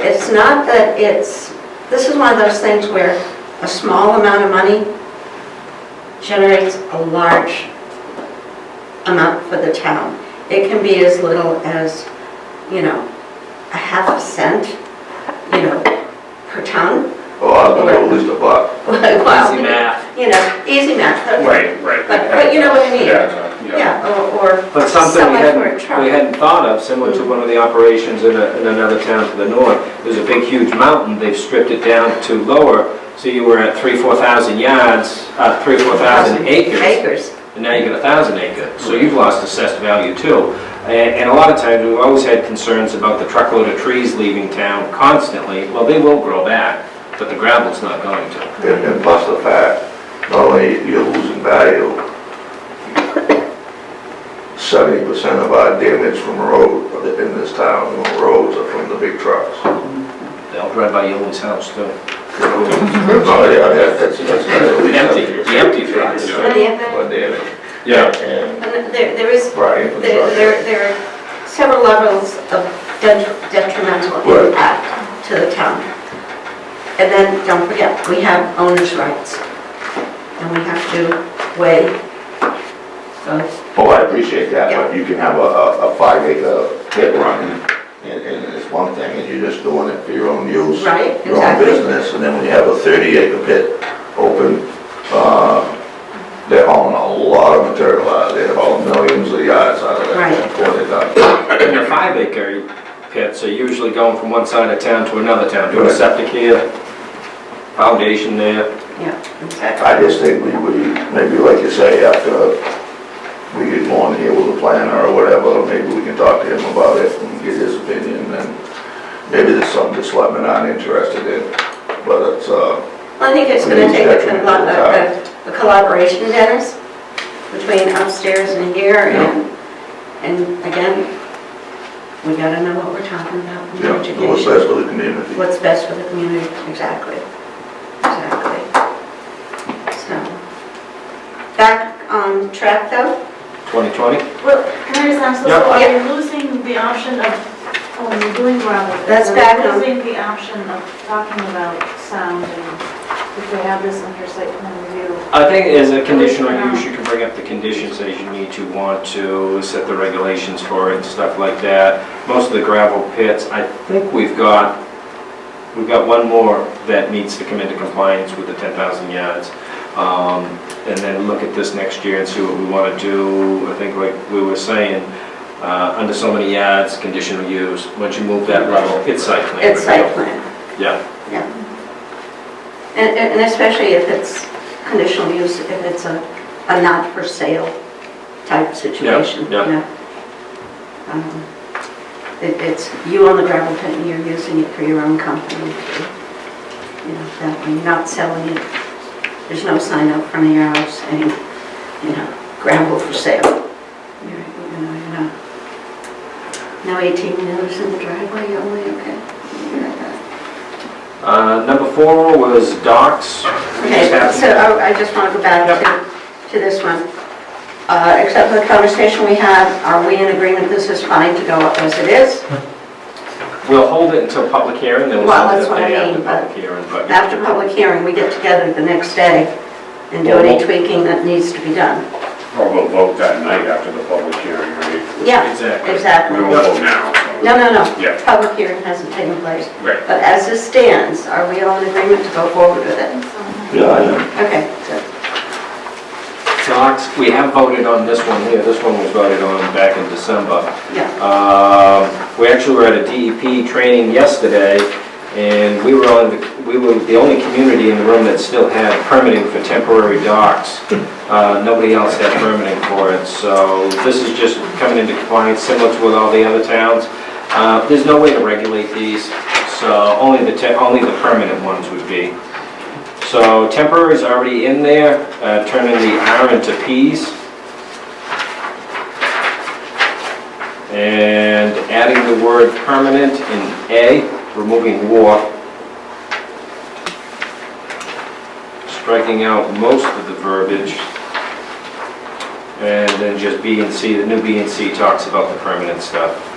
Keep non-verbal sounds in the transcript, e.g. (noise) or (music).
it's not that it's, this is one of those things where a small amount of money generates a large amount for the town. It can be as little as, you know, a half a cent, you know, per ton. (laughs) Oh, I was gonna go at least a buck. Easy Easy math. You know, easy math. Right, right. But, but you know what I mean? Yeah, Yeah, or, or. But something sell we it for a hadn't, truck. we hadn't thought of, similar to one of the operations in a- in another town to the north, there's a big huge mountain, they've stripped it down to lower, so you were at three, four thousand yards, uh, three, four thousand acres, Mm-hmm. Acres. and now you got a thousand acre, so you've lost assessed value too. And, and a lot of times, we've always had concerns about the truckload of trees leaving town constantly, well, they will grow back, but the gravel's not going to. And and plus the fact, not only you're losing value, seventy percent of our damage from road in this town, on roads are from the big trucks. They'll drive by Yoli's house too. No, yeah, that- that's, that's. at least- Empty, the empty trucks. But the- But damage, yeah. and and there, there is, right, there, uh, infrastructure. there- there are several levels of det- detrimental Right. impact to the town. And then, don't forget, we have owner's rights. And we have to weigh those. Oh, I appreciate that, but you can have a, a a five acre pit run, and, and it's one thing, and you're just doing it for your own use. Right, Your own exactly. business, and then when you have a thirty acre pit open, uh, they're hauling a lot of material out of there, hauling millions of yards out of Right. there. before they're done. And the five acre pits are usually going from one side of town to another town, doing a Right. septic here, foundation there. Yeah, exactly. I just think we, we, maybe like you say, after we get on here with a planner or whatever, maybe we can talk to him about it and get his opinion, and maybe there's something the selectmen aren't interested in, but it's, uh, Well, I think it's gonna take a collo- a- a- a collaboration, Dennis, between upstairs and here, and, and again, we gotta know what we're talking about in Yeah, what's education. best for the community. What's best for the community, exactly, exactly. So, back on track though, 2020? Well, can I just ask this, Yeah. are we losing the option of, when we're doing gravel? That's are we back on. Losing the option of talking about sound and if we have this under site plan review? I think as a conditional use, you can bring up the conditions as you need to, want to, set the regulations for it and stuff like that. Most of the gravel pits, I think we've got, we've got one more that needs to come into compliance with the 10,000 yards. Um, And then look at this next year and see what we want to do. I think like we were saying, uh, under so many yards, conditional use, once you move that level, it's site plan. it's site review. plan, Yeah. and, and and especially if it's conditional use, if it's a, a not for sale type situation, you yeah. know? Um, it- It's you own the gravel pit and you're using it for your own company, you know, that way, you're not selling it. There's no sign out front of your house saying, you know, gravel for sale. You're, you know, you're not. Now 18 wheelers in the driveway, you're only, okay? You're like that. Uh, Number four was docks. We just Okay, have- so oh, I just want to go back to, to this one. Uh, Except for the conversation we had, are we in agreement this is fine to go up as it is? We'll hold it until public hearing, then we'll Well, send that's it up what I day after mean, but- public hearing, but After public hearing, we get together the next day and do any tweaking that needs to be done. Or we'll vote that night after the public hearing, right? Yeah, Exactly. We exactly. won't vote now. No, no, no. Yeah. Public hearing hasn't taken place. Right. But as it stands, are we all in agreement to go forward with it? Yeah, I know. Okay, so, docks, we have voted on this one here, this one was voted on back in December. yeah. Um, We actually were at a DEP training yesterday, and we were on, we were the only community in the room that still had permitting for temporary docks. Uh, Nobody else had permitting for it, so this is just coming into compliance, similar to with all the other towns. Uh, There's no way to regulate these, so only the, te- only the permanent ones would be. So temporary is already in there, uh, turning the R into Ps. And adding the word permanent in A, removing war. Striking out most of the verbiage. And then just B and C, the new B and C talks about the permanent stuff.